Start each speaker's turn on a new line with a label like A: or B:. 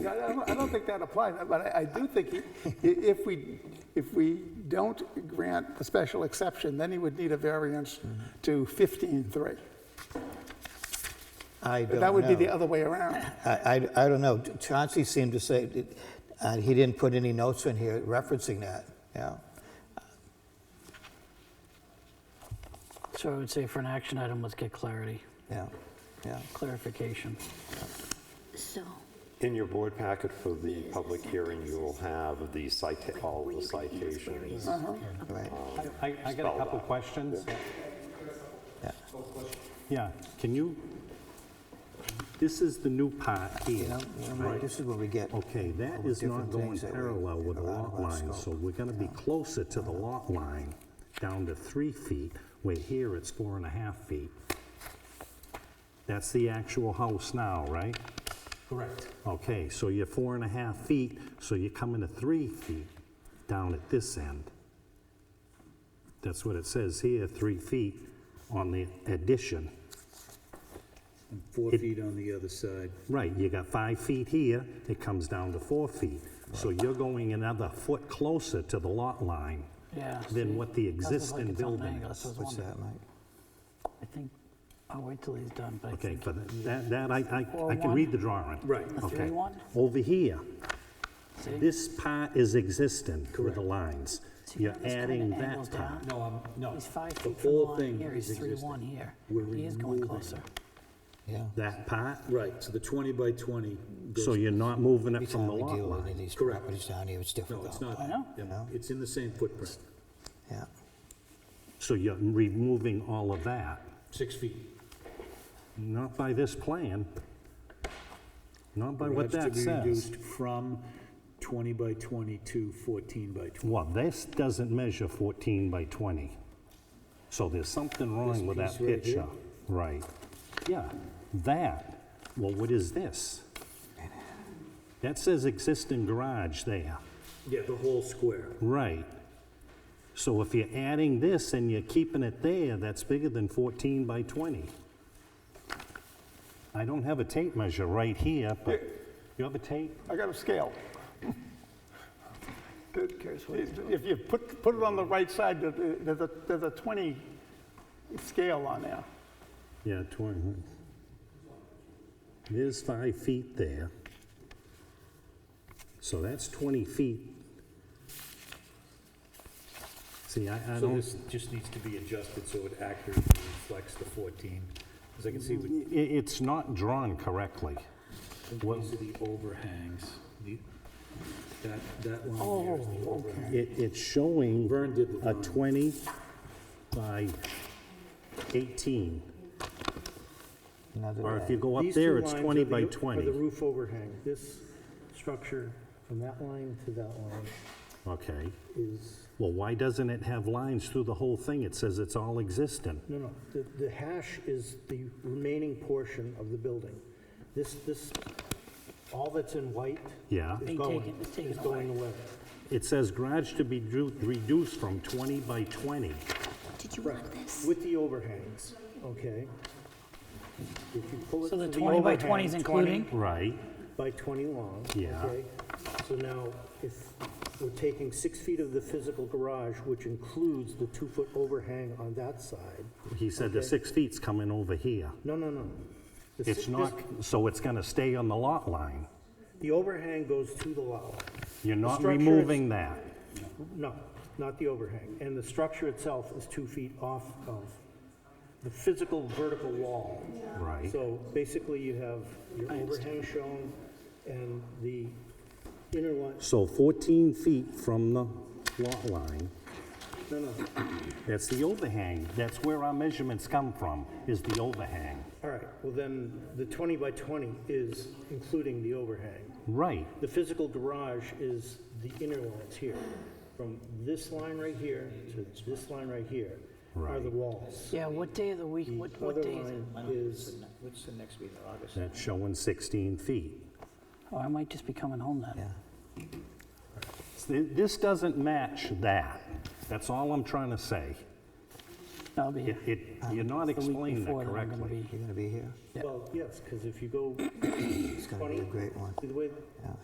A: I don't, I don't think that applies, but I, I do think he- i- if we, if we don't grant a special exception, then he would need a variance to 15.3.
B: I don't know.
A: That would be the other way around.
B: I, I, I don't know. Chauncey seemed to say, that- uh, he didn't put any notes in here referencing that, yeah.
C: So I would say for an action item, let's get clarity,
B: Yeah, yeah.
C: clarification.
D: So,
E: In your board packet for the public hearing, you will have the cita, all the citations.
B: Right.
F: I, I got a couple questions.
B: Yeah.
F: Yeah, can you, this is the new part here, right?
B: This is what we get.
F: Okay, that
B: All the
F: is not
B: different
F: going
B: things that we-
F: parallel with the
B: that are out of
F: lot
B: our
F: line, so
B: scope.
F: we're gonna be closer to the lot line, down to three feet, where here it's four and a half feet. That's the actual house now, right? Correct. Okay, so you're four and a half feet, so you're coming to three feet down at this end. That's what it says here, three feet on the addition.
G: and four feet on the other side.
F: Right, you got five feet here, it comes down to four feet. So you're going another foot closer to the lot line
C: Yeah. see,
F: than what the
C: doesn't look
F: existing
C: like it's on an
F: building
C: angle,
F: is.
C: so it's
B: What's
C: one-
B: that, Mike?
C: I think, I'll wait till he's done, but I
F: Okay,
C: think
F: but that, that, I, I- I can
C: 4-1.
F: read the drawing.
G: Right.
C: A
F: Okay.
C: 3-1?
F: Over here,
C: See?
F: this part is existing with the lines.
C: See
F: You're
C: how this kinda
F: adding
C: angles
F: that
C: down?
F: part.
G: No, I'm, no.
C: he's five
G: The
C: feet from the
G: whole
C: line
G: thing
C: here,
G: is
C: he's three
G: existing.
C: one here.
G: We're
C: He is going
G: removing
C: closer.
B: Yeah.
F: That part,
G: Right, so the 20 by 20 goes.
F: so you're not moving
B: Every
F: it from
B: time
F: the
B: we
F: lot
B: deal with
F: line.
B: any of these
G: Correct.
B: properties down here, it's difficult.
G: No, it's not.
C: I know.
G: Yeah,
B: No.
G: It's in the same footprint,
B: Yeah.
F: So you're removing all of that.
G: six feet.
F: Not by this plan. Not by what that
G: Garage to be
F: says.
G: reduced from 20 by 20 to 14 by 20.
F: Well, this doesn't measure 14 by 20. So there's something
G: This
F: wrong with that
G: piece right here?
F: picture. Right. Yeah, that, well, what is this? That says existing garage there.
G: Yeah, the whole square.
F: Right. So if you're adding this and you're keeping it there, that's bigger than 14 by 20. I don't have a tape measure right here, but you have a tape?
A: I got a scale. If you put, put it on the right side, there- there's a, there's a 20 scale on there.
F: Yeah, 20. huh? There's five feet there. So that's 20 feet. See, I, I
G: So
F: don't,
G: this just needs to be adjusted so it accurately reflects the 14. As I can see, with
F: i- it's not drawn correctly. What-
G: these are the overhangs. The- That, that line there is the
C: Oh,
G: overhang.
F: It, it's showing
G: Vern did the
F: a
G: drawing.
F: 20 by 18.
B: Another
F: Or if
B: way.
F: you go up
H: These two
F: there, it's
H: lines
F: 20
H: are the-
F: by
H: Are the
F: 20.
H: roof overhang, this structure from that line to that line
F: Okay.
H: is,
F: Well, why doesn't it have lines through the whole thing? It says it's all existing.
H: no, no, the, the hash is the remaining portion of the building. This, this, all that's in white
F: Yeah.
H: is
C: Being
H: going,
C: taken- it's taken
H: is going away.
F: It says garage to be drew- reduced from 20 by 20.
D: did you want this?
H: With the overhangs, okay? If you pull it
C: So
H: to
C: the
H: the
C: 20 by 20 is
H: overhang,
C: including?
F: Right.
H: by 20 long.
F: Yeah.
H: okay? So now, if we're taking six feet of the physical garage, which includes the two-foot overhang on that side,
F: He said the six feet's coming over here.
H: no, no, no. The
F: It's
H: si-
F: not,
H: this-
F: so it's going to stay on the lot line.
H: The overhang goes to the lot line.
F: You're
H: The
F: not
H: structure is-
F: removing that.
H: No, not the overhang. And the structure itself is two feet off of the physical vertical wall.
F: Right.
H: So basically, you have your overhang shown and the inner line,
F: So 14 feet from the lot line,
H: no, no,
F: that's the overhang. That's where our measurements come from, is the overhang.
H: all right, well then, the 20 by 20 is including the overhang.
F: Right.
H: The physical garage is the inner lines here. From this line right here to this line right here are the
F: Right.
H: walls.
C: Yeah, what day of the week, what,
H: The
C: what
H: other
C: day is it?
H: line is,
F: That's showing 16 feet.
C: Oh, I might just be coming home then.
F: Th- This doesn't match that. That's all I'm trying to say.
C: No, I'll be
F: It,
C: here.
F: it,
H: Uh,
F: you're not
C: It's the week
F: explaining
C: before
F: that
C: that I'm gonna
F: correctly.
C: be-
B: You're going to be here?
C: Yeah.
H: Well, yes, because if you go
B: It's going to be a great one.
H: the way